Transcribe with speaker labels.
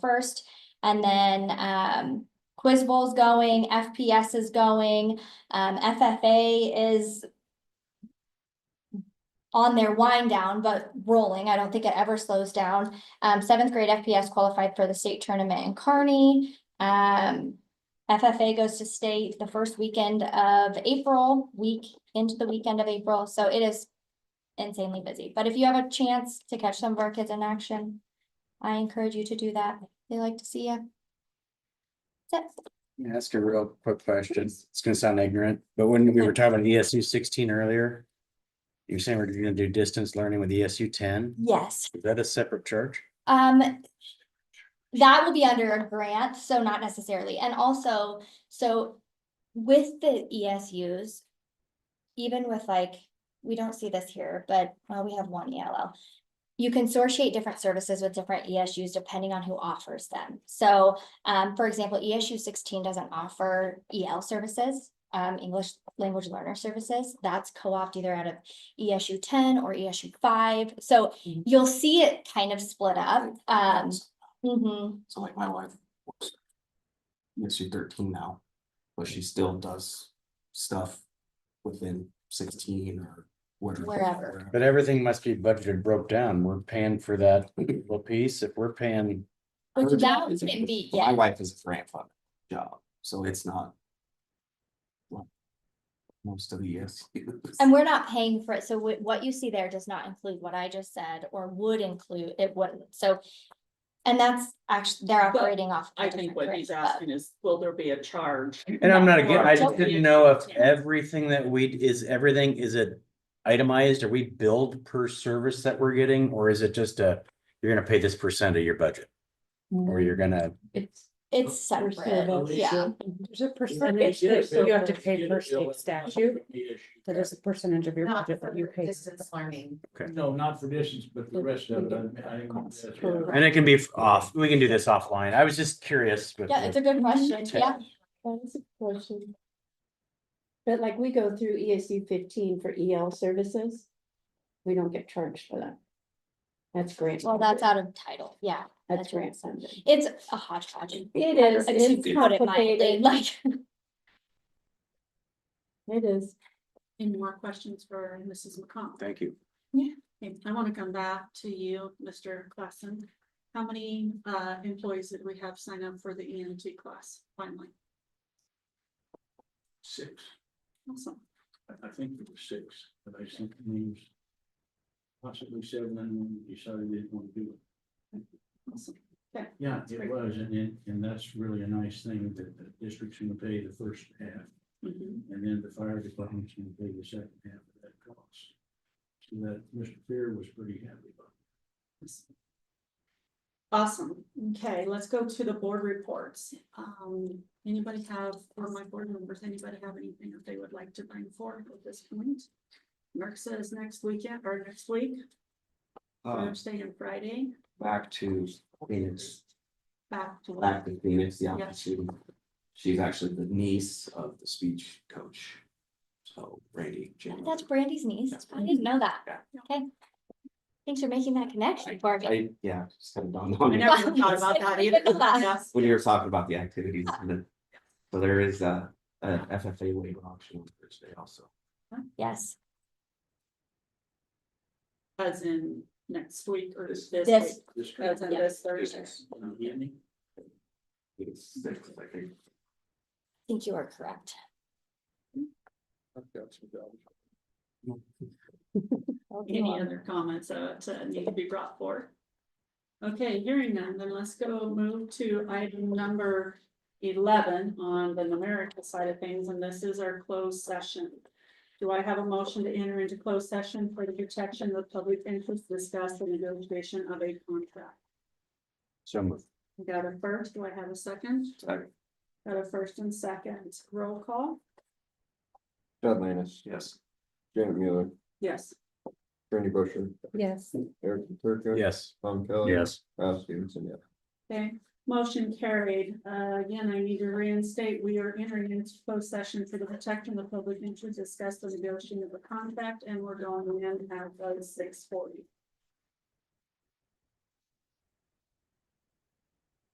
Speaker 1: first. And then um Quiz Bowl's going, FPS is going, um FFA is on their wind down, but rolling. I don't think it ever slows down. Um, seventh grade FPS qualified for the state tournament in Kearney. Um, FFA goes to state the first weekend of April, week into the weekend of April, so it is insanely busy. But if you have a chance to catch some of our kids in action, I encourage you to do that. They like to see you. That's it.
Speaker 2: Can I Ask a real quick question. It's gonna sound ignorant, but when we were talking about ESU sixteen earlier. You're saying we're gonna do distance learning with ESU ten?
Speaker 1: Yes,
Speaker 2: Is that a separate charge?
Speaker 1: um. That will be under a grant, so not necessarily, and also, so with the ESUs. Even with like, we don't see this here, but well, we have one ELL. You consortiate different services with different ESUs depending on who offers them. So um, for example, ESU sixteen doesn't offer EL services. Um, English language learner services, that's co-opted either out of ESU ten or ESU five. So
Speaker 3: Mhm.
Speaker 1: you'll see it kind of split up. Um, mhm.
Speaker 3: So like my wife. works Yes, she's thirteen now, but she still does stuff within sixteen or whatever.
Speaker 1: Wherever.
Speaker 2: But everything must be budgeted, broke down. We're paying for that little piece. If we're paying,
Speaker 1: Which
Speaker 3: Her
Speaker 1: that
Speaker 3: job is a-
Speaker 1: wouldn't be-
Speaker 3: well, My
Speaker 1: yeah.
Speaker 3: wife is a grandfather job, so it's not. like Most of the years.
Speaker 1: And we're not paying for it, so what, what you see there does not include what I just said, or would include, it wouldn't, so. And that's actually, they're
Speaker 4: But
Speaker 1: operating off. a
Speaker 4: I think
Speaker 1: different
Speaker 4: what
Speaker 1: rate,
Speaker 4: he's
Speaker 1: but-
Speaker 4: asking is, will there be a charge?
Speaker 2: and I'm not again, I
Speaker 4: Well,
Speaker 2: just didn't know if everything that we, is everything, is it itemized? Are we billed per service that we're getting? Or is it just a, you're gonna pay this percent of your budget? Or you're gonna,
Speaker 5: It's.
Speaker 1: It's separate, yeah,
Speaker 5: There's a percentage that you have to pay per state statute, that is a percentage of your
Speaker 6: Not
Speaker 5: budget that you
Speaker 6: for
Speaker 5: pay.
Speaker 6: distance learning.
Speaker 7: No, not for distance, but the rest of it. I- I-
Speaker 5: Costs.
Speaker 7: yeah.
Speaker 5: Correct.
Speaker 2: and it can be off, we can do this offline. I was just curious. with
Speaker 1: yeah,
Speaker 2: the-
Speaker 1: it's a good question, yeah,
Speaker 8: But like we go through ESU fifteen for EL services, we don't get charged for that. That's grant.
Speaker 1: well, that's out of title, yeah,
Speaker 8: That's grant funded.
Speaker 1: it's a hodgepodge.
Speaker 8: It
Speaker 1: I
Speaker 8: is,
Speaker 1: don't- to
Speaker 8: it's
Speaker 1: Put it mildly,
Speaker 8: complicated,
Speaker 1: like,
Speaker 8: it is.
Speaker 9: Any more questions for Mrs. McComb?
Speaker 2: Thank you.
Speaker 9: Okay, I want to come back to you, Mr. Klassen. How many uh employees did we have sign up for the EMT class finally?
Speaker 7: Six,
Speaker 9: Awesome.
Speaker 7: I- I think there were six, but I think it was possibly seven, and one decided they didn't want to do it.
Speaker 9: Awesome.
Speaker 7: Yeah, it was, and then, and that's really a nice thing that the district's gonna pay the first half,
Speaker 9: Mhm.
Speaker 7: and then the fire department's gonna pay the second half of that cost. So that Mr. Fear was pretty happy about.
Speaker 9: Awesome. Okay, let's go to the board reports. Um, anybody have, or my board members, anybody have anything that they would like to bring forward at this point? Mark says next weekend or next week,
Speaker 3: Um,
Speaker 9: Thursday and Friday,
Speaker 3: back to Phoenix,
Speaker 9: back to.
Speaker 3: back to Phoenix, the
Speaker 9: Yeah.
Speaker 3: opportunity. She's actually the niece of the speech coach. So Randy. James.
Speaker 1: that's Brandy's niece, I didn't know that,
Speaker 3: Yeah.
Speaker 1: okay. Thanks for making that connection, Barbie.
Speaker 3: I, yeah, just kind of dawned
Speaker 9: I
Speaker 3: on me
Speaker 9: never even thought about that either. Yes.
Speaker 3: when you were talking about the activities. and then- So there is a, a FFA waiver option on Thursday also.
Speaker 1: Yes,
Speaker 9: As in next week or
Speaker 3: This-
Speaker 9: this
Speaker 1: This-
Speaker 9: week,
Speaker 7: This
Speaker 9: as in
Speaker 1: Yeah.
Speaker 9: this Thursday.
Speaker 3: Business.
Speaker 7: Andy?
Speaker 3: It's six, I think.
Speaker 1: I think you are correct.
Speaker 3: I've got some doubts.
Speaker 9: Any other comments that uh, need to be brought forth? Okay, hearing none, then let's go move to item number eleven on the numerical side of things, and this is our closed session. Do I have a motion to enter into closed session for the protection of public interest discussed in negotiation of a contract?
Speaker 2: So moved.
Speaker 9: Got a first, do I have a second?
Speaker 3: Second.
Speaker 9: Got a first and second, roll call?
Speaker 10: Chad Lannis,
Speaker 3: Yes.
Speaker 10: Janet Mueller,
Speaker 9: Yes.
Speaker 10: Randy Busher,
Speaker 5: Yes.
Speaker 10: Eric Turka.
Speaker 2: Yes.
Speaker 10: Tom Kelly.
Speaker 2: Yes.
Speaker 10: Ralph Stevenson, yes.
Speaker 9: Okay, motion carried. Uh, again, I need to reinstate, we are entering into closed session for the protection of the public interest, discuss the negotiation of the contract, and we're going in at six forty.